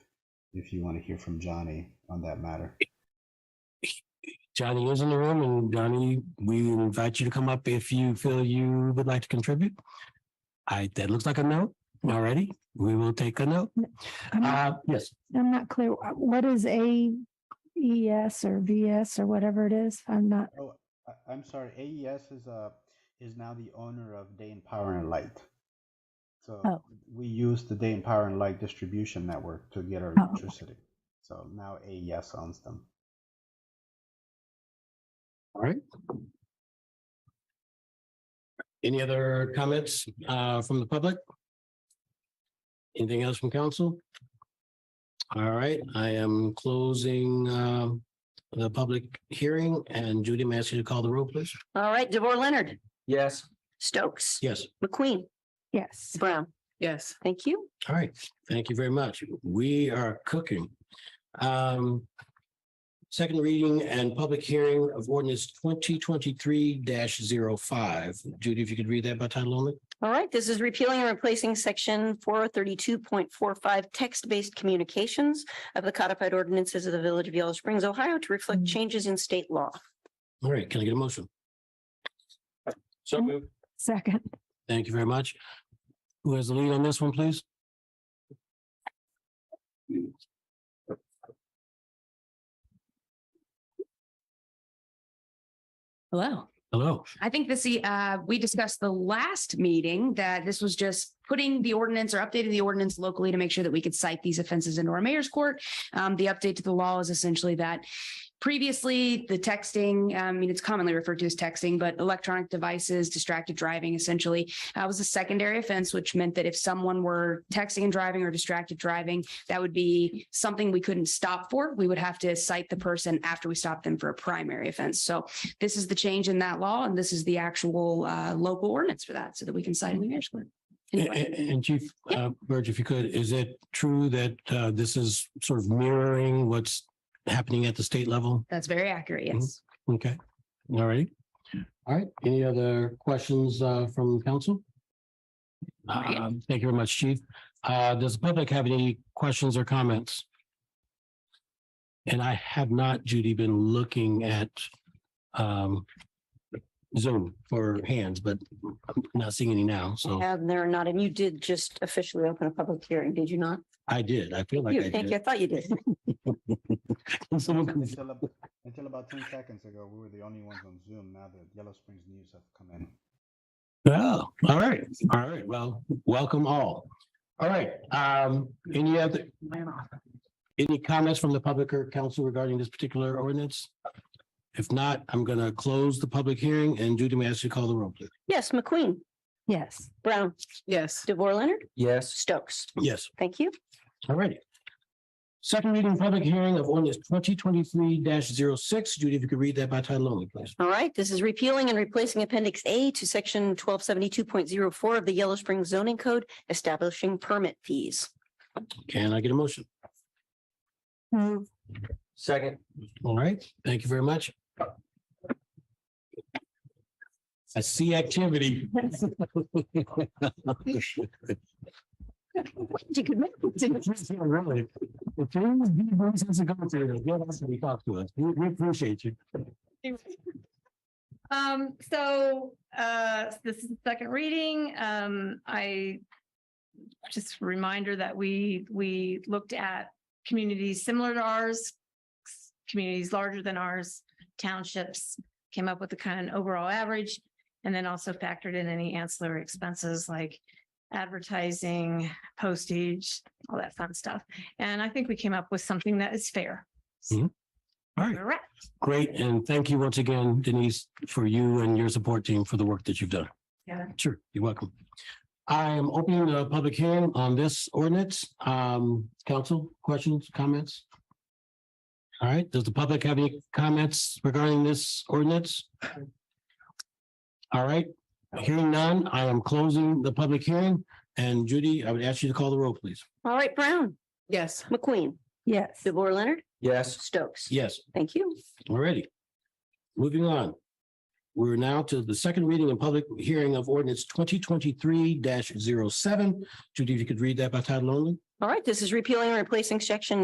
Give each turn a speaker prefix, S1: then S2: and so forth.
S1: if you want to hear from Johnny on that matter.
S2: Johnny is in the room and Johnny, we invite you to come up if you feel you would like to contribute. I, that looks like a note already. We will take a note.
S3: I'm not,
S2: Uh, yes,
S3: I'm not clear. uh, What is A E S or V S or whatever it is? I'm not,
S1: Oh, I- I'm sorry. AES is uh is now the owner of Day and Power and Light. So
S3: Oh.
S1: we use the Day and Power and Light distribution network to get our
S3: Oh, okay.
S1: electricity. So now AES owns them.
S2: all right. Any other comments uh from the public? Anything else from council? All right, I am closing um the public hearing and Judy, may I ask you to call the roll, please?
S4: All right, DeVore Leonard,
S5: Yes.
S4: Stokes,
S2: Yes.
S4: McQueen,
S3: yes.
S4: Brown.
S5: Yes.
S4: Thank you.
S2: All right, thank you very much. We are cooking. Um. Second reading and public hearing of ordinance twenty twenty-three 5 Judy, if you could read that by title only?
S4: All right, this is repealing and replacing section four thirty-two point four five text-based communications of the codified ordinances of the Village of Yellow Springs, Ohio to reflect
S3: Mm.
S6: Mm-hmm.
S4: changes in state law.
S2: All right, can I get a motion?
S5: So moved.
S3: Second,
S2: Thank you very much. Who has the lead on this one, please?
S6: Hello.
S2: Hello,
S6: I think this, uh, we discussed the last meeting that this was just putting the ordinance or updating the ordinance locally to make sure that we could cite these offenses into our mayor's court. Um, the update to the law is essentially that previously the texting, um, I mean, it's commonly referred to as texting, but electronic devices, distracted driving essentially, uh, was a secondary offense, which meant that if someone were texting and driving or distracted driving, that would be something we couldn't stop for. We would have to cite the person after we stopped them for a primary offense. So this is the change in that law and this is the actual uh local ordinance for that so that we can
S3: Mm-hmm.
S6: sign in the mayor's court.
S2: A-
S6: Anyway.
S2: a- and Chief uh Burge, if you could, is it true that uh this is sort of mirroring what's happening at the state level?
S6: That's very accurate. Yes.
S2: Okay, all right. All right, any other questions uh from council?
S6: Right.
S2: Um, Thank you very much, Chief. Uh, does the public have any questions or comments? And I have not, Judy, been looking at um Zoom for hands, but I'm not seeing any now, so
S4: And they're not, and you did just officially open a public hearing, did you not?
S2: I did, I feel like I
S4: You, thank you. I
S2: did.
S4: thought you did.
S2: Someone can-
S1: Until, ab- until about 10 seconds ago, we were the only ones on Zoom. Now the Yellow Springs News have come in.
S2: Oh, all right, all right, well, welcome all. All right, um, any other, any comments from the public or council regarding this particular ordinance? If not, I'm gonna close the public hearing and Judy, may I ask you to call the roll, please?
S4: Yes, McQueen,
S3: Yes,
S4: Brown,
S5: Yes.
S4: DeVore Leonard,
S5: Yes.
S4: Stokes.
S2: Yes.
S4: Thank you.
S2: All righty. Second reading, public hearing of ordinance twenty twenty-three 6 Judy, if you could read that by title only, please.
S4: All right, this is repealing and replacing Appendix A to Section twelve seventy-two point zero four of the Yellow Springs zoning code establishing permit fees.
S2: Can I get a motion?
S3: move,
S5: Second.
S2: All right, thank you very much. I see activity.
S3: you could make it to-
S2: Really, if there was any reasons to go through this, you'll actually talk to us. We- We appreciate you.
S7: Um, so, uh, this is the second reading. Um, I just a reminder that we, we looked at communities similar to ours, communities larger than ours, townships, came up with a kind of overall average, and then also factored in any ancillary expenses like advertising, postage, all that fun stuff. And I think we came up with something that is fair.
S2: Mm-hmm. All right,
S7: Correct.
S2: great. And thank you once again, Denise, for you and your support team for the work that you've done.
S7: Yeah.
S2: Sure, you're welcome. I am opening the public hearing on this ordinance. Um, council, questions, comments? All right, does the public have any comments regarding this ordinance? All right, hearing none, I am closing the public hearing. And Judy, I would ask you to call the roll, please.
S4: All right, Brown,
S5: Yes.
S4: McQueen,
S3: yes.
S4: DeVore Leonard,
S5: Yes.
S4: Stokes.
S2: Yes.
S4: Thank you.
S2: Alrighty. Moving on. We're now to the second reading and public hearing of ordinance twenty twenty-three 7 Judy, if you could read that by title only?
S4: All right, this is repealing and replacing section